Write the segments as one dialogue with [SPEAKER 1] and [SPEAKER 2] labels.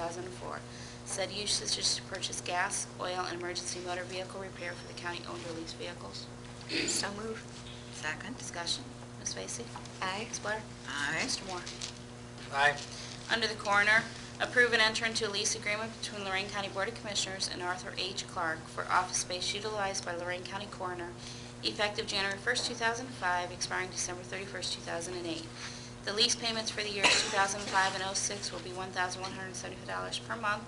[SPEAKER 1] 2004. Said usage is to purchase gas, oil, and emergency motor vehicle repair for the county-owned or leased vehicles.
[SPEAKER 2] So moved. Second.
[SPEAKER 1] Discussion. Ms. Vacy?
[SPEAKER 2] Aye.
[SPEAKER 1] Ms. Blair?
[SPEAKER 2] Aye.
[SPEAKER 1] Mr. Moore?
[SPEAKER 3] Aye.
[SPEAKER 1] Under the Coroner, approve and enter into a lease agreement between Lorraine County Board of Commissioners and Arthur H. Clark for office space utilized by Lorraine County Coroner, effective January 1st, 2005, expiring December 31st, 2008. The lease payments for the years 2005 and 06 will be $1,175 per month,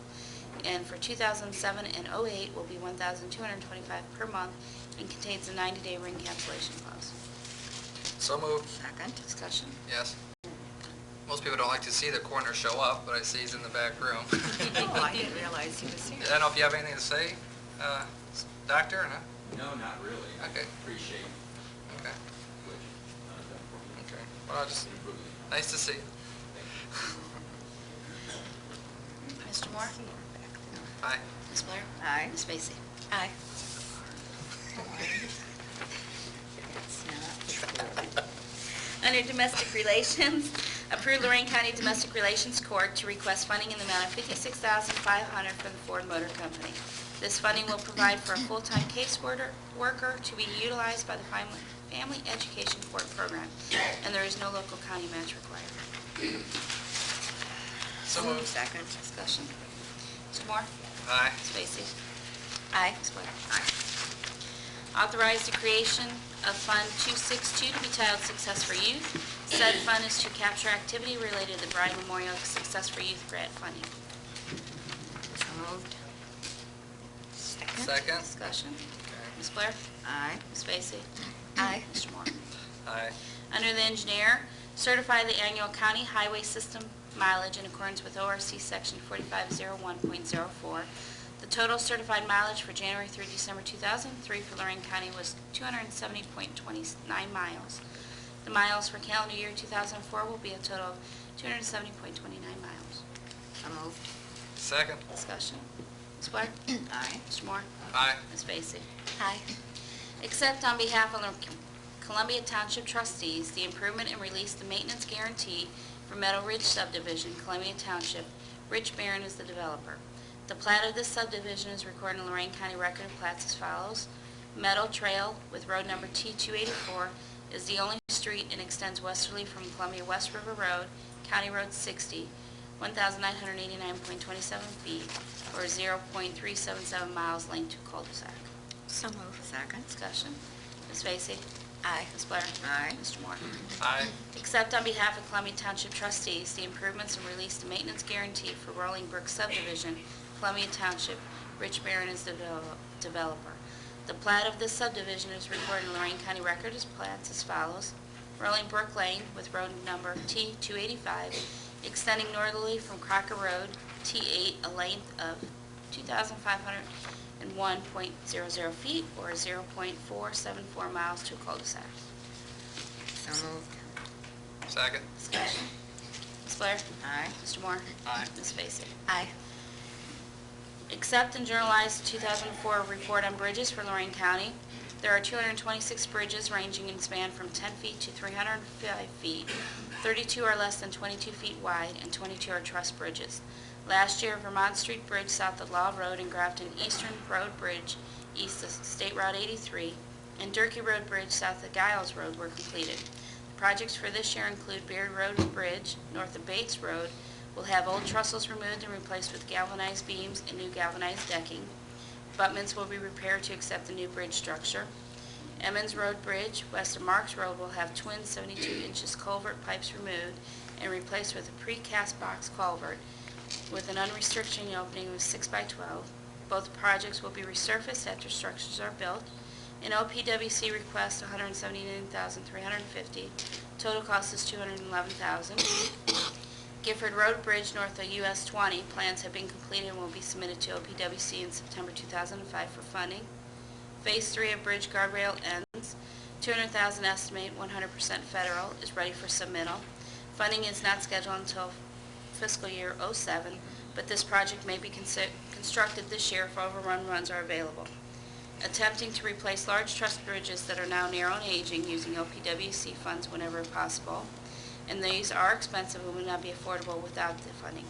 [SPEAKER 1] and for 2007 and 08 will be $1,225 per month, and contains a 90-day ring cancellation clause.
[SPEAKER 3] So moved.
[SPEAKER 2] Second.
[SPEAKER 1] Discussion.
[SPEAKER 3] Yes. Most people don't like to see the coroner show up, but I see he's in the back room.
[SPEAKER 2] Oh, I didn't realize he was
[SPEAKER 3] I
[SPEAKER 2] here.
[SPEAKER 3] don't know if you have anything to say, uh, s- Doctor, or not?
[SPEAKER 4] No, not really. I
[SPEAKER 3] Okay.
[SPEAKER 4] Appreciate
[SPEAKER 3] Okay,
[SPEAKER 4] what you've done for me.
[SPEAKER 3] okay. Well, just,
[SPEAKER 4] It's improving.
[SPEAKER 3] nice to see you.
[SPEAKER 1] Mr. Moore?
[SPEAKER 3] Aye.
[SPEAKER 1] Ms. Blair?
[SPEAKER 2] Aye.
[SPEAKER 1] Ms. Vacy?
[SPEAKER 2] Aye. That's not true.
[SPEAKER 1] Under Domestic Relations, approve Lorraine County Domestic Relations Court to request funding in the amount of $56,500 from the Ford Motor Company. This funding will provide for a full-time caseworker worker to be utilized by the Fam- Family Education Court Program, and there is no local county match required.
[SPEAKER 3] So moved.
[SPEAKER 2] Second.
[SPEAKER 1] Discussion. Mr. Moore?
[SPEAKER 3] Aye.
[SPEAKER 1] Ms. Vacy?
[SPEAKER 2] Aye.
[SPEAKER 1] Ms. Blair? Authorize the creation of Fund 262 to be titled Success for Youth. Said fund is to capture activity related to the Bryan Memorial Success for Youth grant funding.
[SPEAKER 2] So moved. Second.
[SPEAKER 3] Second?
[SPEAKER 1] Discussion.
[SPEAKER 3] Okay.
[SPEAKER 1] Ms. Blair?
[SPEAKER 2] Aye.
[SPEAKER 1] Ms. Vacy?
[SPEAKER 2] Aye.
[SPEAKER 1] Mr. Moore?
[SPEAKER 3] Aye.
[SPEAKER 1] Under the engineer, certify the annual county highway system mileage in accordance with ORC Section 4501.04. The total certified mileage for January through December 2003 for Lorraine County was 270.29 miles. The miles for calendar year 2004 will be a total of 270.29 miles.
[SPEAKER 2] So moved.
[SPEAKER 3] Second?
[SPEAKER 1] Discussion. Ms. Blair?
[SPEAKER 2] Aye.
[SPEAKER 1] Mr. Moore?
[SPEAKER 3] Aye.
[SPEAKER 1] Ms. Vacy?
[SPEAKER 2] Aye.
[SPEAKER 1] Accept on behalf of Columbia Township trustees the improvement and release the maintenance guarantee for Meadow Ridge subdivision, Columbia Township. Rich Barron is the developer. The plat of this subdivision is recorded in Lorraine County Record of Plats as follows. Meadow Trail with road number T-284 is the only street and extends westerly from Columbia West River Road, County Road 60, 1,989.27 feet, or 0.377 miles length to cul-de-sac.
[SPEAKER 2] So moved. Second.
[SPEAKER 1] Discussion. Ms. Vacy?
[SPEAKER 2] Aye.
[SPEAKER 1] Ms. Blair?
[SPEAKER 2] Aye.
[SPEAKER 1] Mr. Moore?
[SPEAKER 3] Aye.
[SPEAKER 1] Accept on behalf of Columbia Township trustees the improvements and release the maintenance guarantee for Rolling Brook subdivision, Columbia Township. Rich Barron is the devel- developer. The plat of this subdivision is recorded in Lorraine County Record as plats as follows. Rolling Brook Lane with road number T-285 extending northerly from Crocker Road, T-8, a length of 2,501.00 feet or 0.474 miles to a cul-de-sac.
[SPEAKER 2] So moved.
[SPEAKER 3] Second?
[SPEAKER 1] Discussion. Ms. Blair?
[SPEAKER 2] Aye.
[SPEAKER 1] Mr. Moore?
[SPEAKER 3] Aye.
[SPEAKER 1] Ms. Vacy?
[SPEAKER 2] Aye.
[SPEAKER 1] Accept and journalize the 2004 report on bridges for Lorraine County. There are 226 bridges ranging in span from 10 feet to 305 feet. 32 are less than 22 feet wide, and 22 are truss bridges. Last year, Vermont Street Bridge south of Law Road and Grafton Eastern Road Bridge east of State Route 83 and Durkey Road Bridge south of Giles Road were completed. Projects for this year include Beard Road Bridge, north of Bates Road, will have old trestles removed and replaced with galvanized beams and new galvanized decking. Abutments will be repaired to accept the new bridge structure. Emmons Road Bridge, west of Marks Road, will have twin 72 inches culvert pipes removed and replaced with a precast box culvert with an unrestricted opening of 6 by 12. Both projects will be resurfaced after structures are built. An OPWC request, $179,350. Total cost is $211,000. Gifford Road Bridge north of US 20, plans have been completed and will be submitted to OPWC in September 2005 for funding. Phase 3 of Bridge Guardrail ends, 200,000 estimate, 100% federal, is ready for submittal. Funding is not scheduled until fiscal year '07, but this project may be consi- constructed this year if overrun runs are available. Attempting to replace large truss bridges that are now narrow and aging using LPWC funds whenever possible, and these are expensive and would not be affordable without the funding.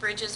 [SPEAKER 1] Bridges